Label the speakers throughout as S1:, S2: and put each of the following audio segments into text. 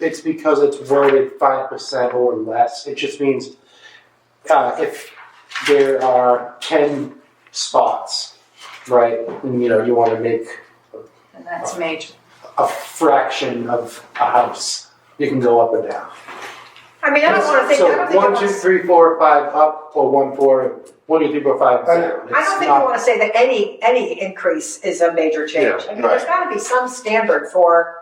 S1: It's because it's worded five percent or less. It just means uh, if there are ten spots, right? And, you know, you want to make
S2: And that's major.
S1: a fraction of a house. You can go up and down.
S2: I mean, I don't wanna think, I don't
S1: So
S2: think I
S1: one, two,
S2: wanna,
S1: three, four, five up, or one, four, one, two, three, four, five
S3: I-
S1: down.
S4: I
S1: It's
S4: don't think
S1: not-
S4: we wanna say that any, any increase is a major change.
S3: Yeah,
S4: I mean, there's gotta be some standard for,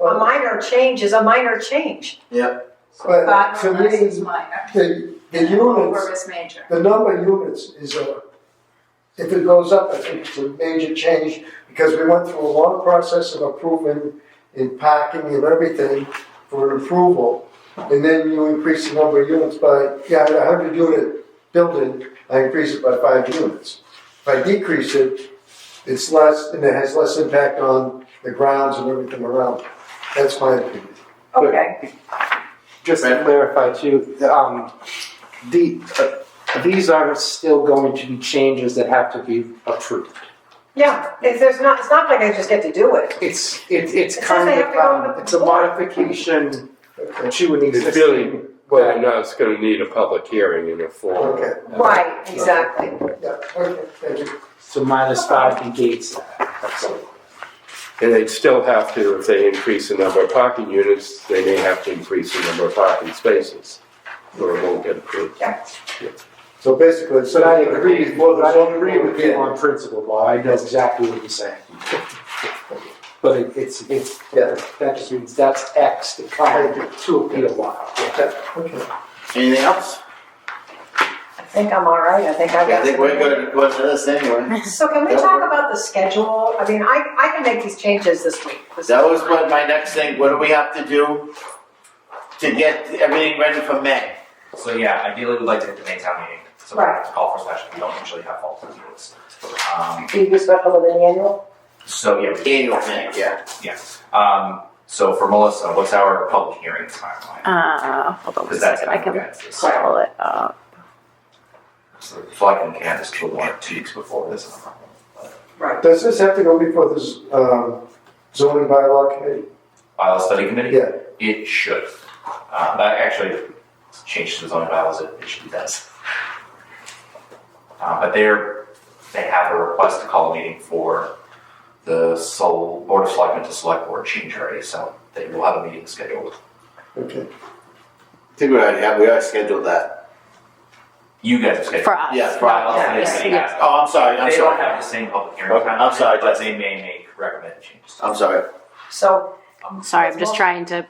S4: a minor change is a minor change.
S3: But
S2: but
S3: to
S2: unless it's
S3: me,
S2: minor.
S3: the, the
S2: and
S3: units,
S2: Over is major.
S3: the number of units is a, if it goes up, I think it's a major change because we went through a long process of approving and packing and everything for an approval. And then you increase the number of units by, yeah, a hundred unit building, I increase it by five units. If I decrease it, it's less, and it has less impact on the grounds and everything around. That's my opinion.
S1: Good.
S4: Okay,
S1: Just to
S5: Right.
S1: clarify too, um, the, uh, these are still going to be changes that have to be approved.
S4: yeah, if there's not, it's not like I just get to do it.
S1: It's, it, it's
S4: It says
S1: kind
S4: they
S1: of,
S4: have to go to
S1: um,
S4: the
S1: it's a
S4: board.
S1: modification
S3: Okay.
S1: to an
S6: It's really-
S1: existing.
S6: Whether or not it's gonna need a public hearing in a formal.
S3: Okay,
S4: Right, exactly.
S3: yeah, okay, thank you.
S1: So minus five negates that, that's all.
S6: And they'd still have to, if they increase the number of parking units, they may have to increase the number of parking spaces. Or it won't get approved.
S3: So basically, so
S1: But I agree,
S3: Well,
S1: I agree with you on principle, Bob, I know exactly what you're saying. But it- it's, it's,
S3: Yeah.
S1: that just means that's X to come to a P a while.
S3: Okay.
S5: Anything else?
S4: I think I'm all right, I think I've got.
S5: I think we're gonna go into this anyway.
S4: So can we talk about the schedule? I mean, I, I can make these changes this week.
S5: That was what my next thing, what do we have to do to get everything ready for May?
S7: So yeah, ideally we'd like to hit the May town meeting, so we have to call for special, we don't usually have fall town meetings. Um,
S4: Do you do special within the annual?
S7: so yeah,
S5: Annual May, yeah.
S7: um, so for Melissa, what's our public hearing timeline?
S8: Uh, hold on one
S7: Because that's
S8: second,
S7: how
S8: I
S7: we
S8: can
S7: get this.
S8: pull it up.
S7: So plugging Candace to one or two weeks before this.
S3: Does this have to go before this um, zoning bylaw committee?
S7: Bylaw study committee?
S3: Yeah.
S7: It should. Uh, that actually changed the zoning bylaws, it usually does. Uh, but they're, they have a request to call a meeting for the sole board of selectmen to select board change already, so they will have a meeting scheduled.
S3: Okay.
S5: I think we already have, we already scheduled that.
S7: You guys have scheduled.
S8: For us.
S5: Yeah, right.
S7: Bylaws
S4: Yeah,
S7: committee
S4: yeah,
S7: committee has.
S5: Oh, I'm sorry, I'm
S7: They don't have
S5: sorry.
S7: the same public hearing
S5: Okay,
S7: time,
S5: I'm sorry,
S7: but
S5: Jess.
S7: they may make recommended changes.
S5: I'm sorry.
S4: So,
S7: Um,
S8: Sorry, I'm just trying to.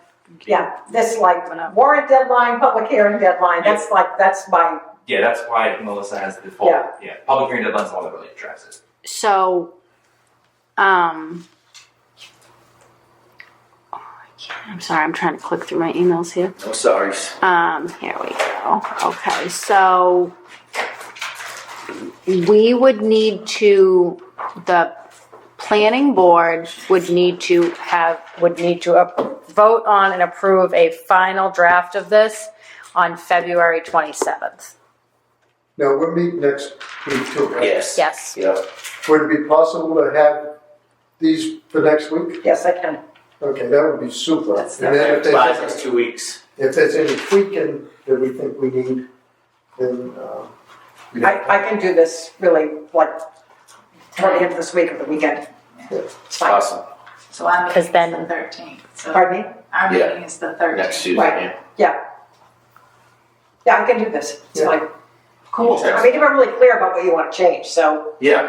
S4: yeah, this like
S8: Went
S4: warrant deadline, public hearing deadline, that's like, that's my,
S7: Yeah, that's why Melissa has the full,
S4: Yeah.
S7: yeah, public hearing deadline's the one that really drives it.
S8: So, um, oh, I can't- I'm sorry, I'm trying to click through my emails here.
S5: No sorries.
S8: Um, here we go. Okay, so we would need to, the planning board would need to have, would need to up- vote on and approve a final draft of this on February 27th.
S3: Now, we'll meet next week too, right?
S5: Yes.
S8: Yes.
S5: Yeah.
S3: Would it be possible to have these for next week?
S4: yes, I can.
S3: Okay, that would be super.
S4: That's
S3: And then if
S5: Buys
S3: there's,
S5: us two weeks.
S3: if there's any tweaking that we think we need, then, um, we
S4: I, I can do this really like toward the end of this week or the weekend. It's fine.
S5: Awesome.
S2: So our meeting
S8: 'Cause
S2: is
S8: then-
S2: the thirteenth, so
S4: Pardon me?
S2: our
S5: Yeah.
S2: meeting is the thirteenth.
S5: Next Tuesday,
S4: Right.
S5: yeah.
S4: Yeah, I can do this. It's
S3: Yeah.
S4: like, cool.
S5: Okay.
S4: I mean, you were really clear about what you want to change, so,
S5: Yeah.
S7: You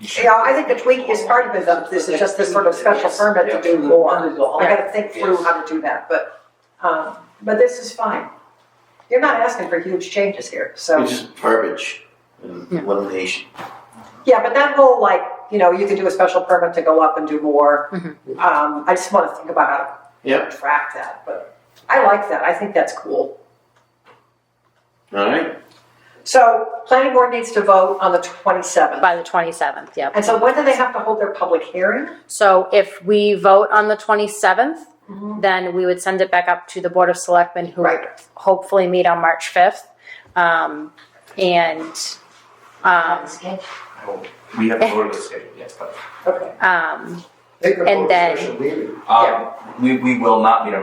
S4: you
S7: should-
S4: know, I think the tweak is part of it, though. This is just this sort of special permit to do more. I gotta think through how to do that, but, um, but this is fine. You're not asking for huge changes here, so,
S5: It's just verbiage and
S8: Yeah.
S5: elimination.
S4: yeah, but that whole like, you know, you can do a special permit to go up and do more. Um, I just wanna think about how
S5: Yep.
S4: to track that, but I like that, I think that's cool.
S5: All right.
S4: So, planning board needs to vote on the twenty-seventh,
S8: By the 27th, yep.
S4: and so when do they have to hold their public hearing?
S8: So if we vote on the 27th, then we would send it back up to the Board of Selectmen, who would hopefully meet on March 5th. Um, And, um,
S7: I will- We have to go to the schedule, yes, but,
S4: Okay.
S8: um,
S3: they could
S8: And
S3: hold a
S8: then-
S3: special meeting.
S7: um, we, we will not meet on